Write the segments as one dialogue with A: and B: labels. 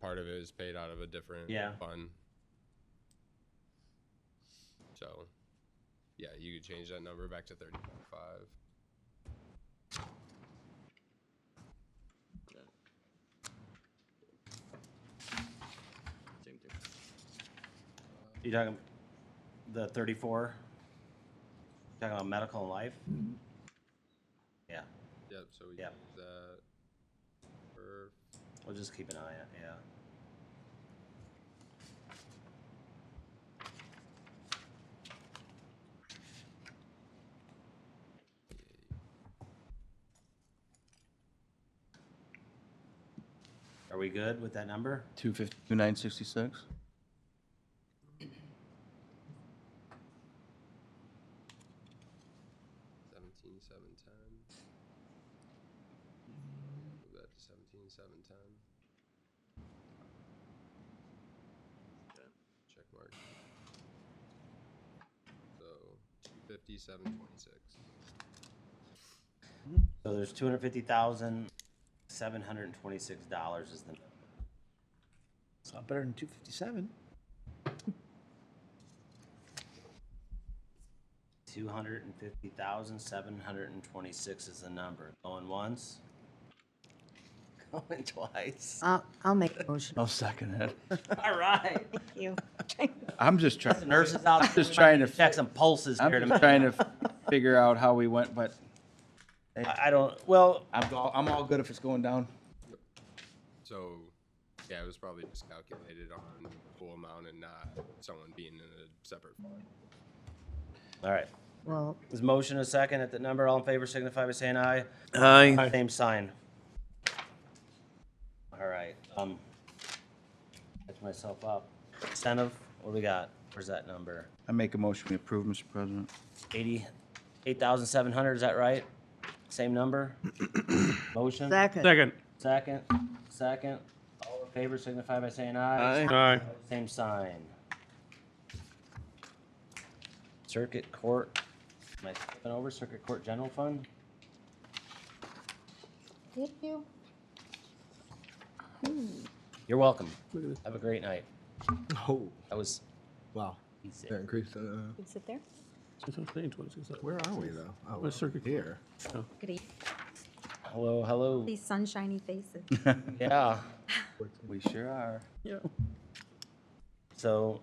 A: part of it is paid out of a different
B: Yeah.
A: fund. So, yeah, you could change that number back to thirty-five.
C: Same thing.
B: You talking the thirty-four? Talking about medical and life? Yeah,
A: Yep, so we
B: Yep.
A: use that for
B: we'll just keep an eye on it, yeah. Are we good with that number?
D: Two fifty, two nine sixty-six?
A: seventeen, seven, ten. Move that to seventeen, seven, ten.
C: Okay.
A: Check mark. So, two fifty, seven, twenty-six.
B: So there's two hundred fifty thousand, seven hundred and twenty-six dollars is the,
E: It's not better than two fifty-seven.
B: two hundred and fifty thousand, seven hundred and twenty-six is the number. Going once? Going twice?
F: I'll, I'll make a motion.
D: I'll second it.
B: All right.
F: Thank you.
D: I'm just trying,
B: Nurses out. there,
D: Just trying to-
B: Check some pulses here
D: I'm
B: to
D: just
B: make.
D: trying to figure out how we went, but
B: I I don't, well,
D: I'm all, I'm all good if it's going down.
A: So, yeah, it was probably just calculated on the full amount and not someone being in a separate fund.
B: all right.
F: Well,
B: There's a motion a second at the number. All in favor signify by saying aye.
E: Aye.
B: Same sign. All right, um, catch myself up. Incentive, what do we got? Where's that number?
D: I make a motion we approve, Mr. President.
B: Eighty, eight thousand seven hundred, is that right? Same number? Motion?
F: second.
E: Second.
B: Second, second. All in favor signify by saying aye.
E: Aye.
B: Same sign. Circuit Court, am I skipping over Circuit Court General Fund?
F: Did you?
B: You're welcome.
E: Look at this.
B: Have a great night.
G: Oh,
B: That was
G: wow.
B: easy.
G: That increased, uh,
F: Can sit there?
E: That's what I'm saying, 26.
G: where are we though? Oh,
E: Where's Circuit Court?
G: Here.
F: Look at you.
B: Hello, hello.
F: These sunshiny faces.
B: Yeah.
D: We sure are.
E: Yeah.
B: So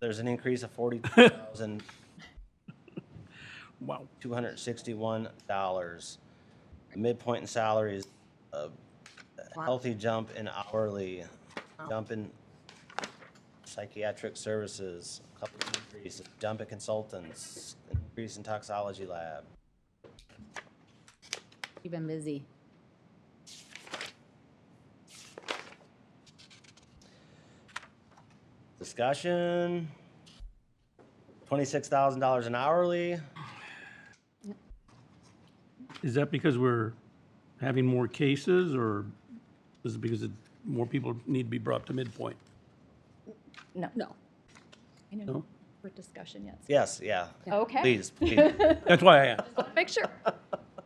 B: there's an increase of forty thousand
E: Wow.
B: two hundred sixty-one dollars. The midpoint in salaries, a a
F: Wow.
B: healthy jump in hourly, jump in psychiatric services, a couple of increases, jump in consultants, increase in toxology lab.
H: You've been busy.
B: Discussion. Twenty-six thousand dollars an hourly.
E: Is that because we're having more cases or is it because it- more people need to be brought to midpoint?
H: No.
I: No. I know,
E: No?
I: for discussion yet.
B: Yes, yeah.
I: Okay.
B: Please, please.
E: That's why I asked.
I: Make sure.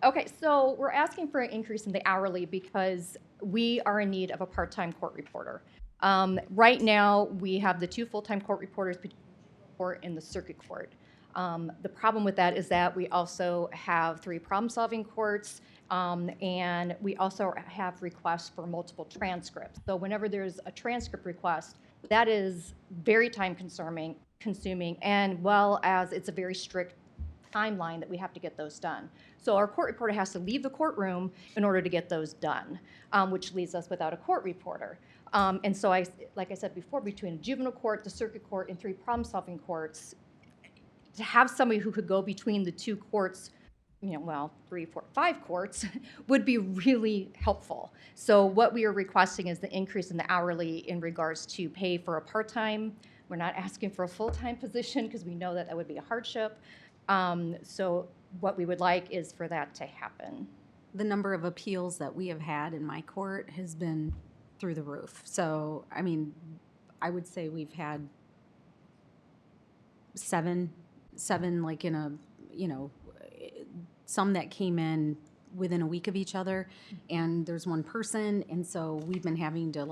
I: Okay, so we're asking for an increase in the hourly because we are in need of a part-time court reporter. Um, right now, we have the two full-time court reporters between the court and the circuit court. Um, the problem with that is that we also have three problem-solving courts, um, and we also have requests for multiple transcripts. So whenever there's a transcript request, that is very time-consuming, consuming, and well as it's a very strict timeline that we have to get those done. So our court reporter has to leave the courtroom in order to get those done, um, which leaves us without a court reporter. Um, and so I, like I said before, between juvenile court, the circuit court, and three problem-solving courts, to have somebody who could go between the two courts, you know, well, three, four, five courts, would be really helpful. So what we are requesting is the increase in the hourly in regards to pay for a part-time. We're not asking for a full-time position because we know that that would be a hardship. Um, so what we would like is for that to happen.
H: The number of appeals that we have had in my court has been through the roof. So, I mean, I would say we've had seven, seven like in a, you know, eh, some that came in within a week of each other. And there's one person, and so we've been having to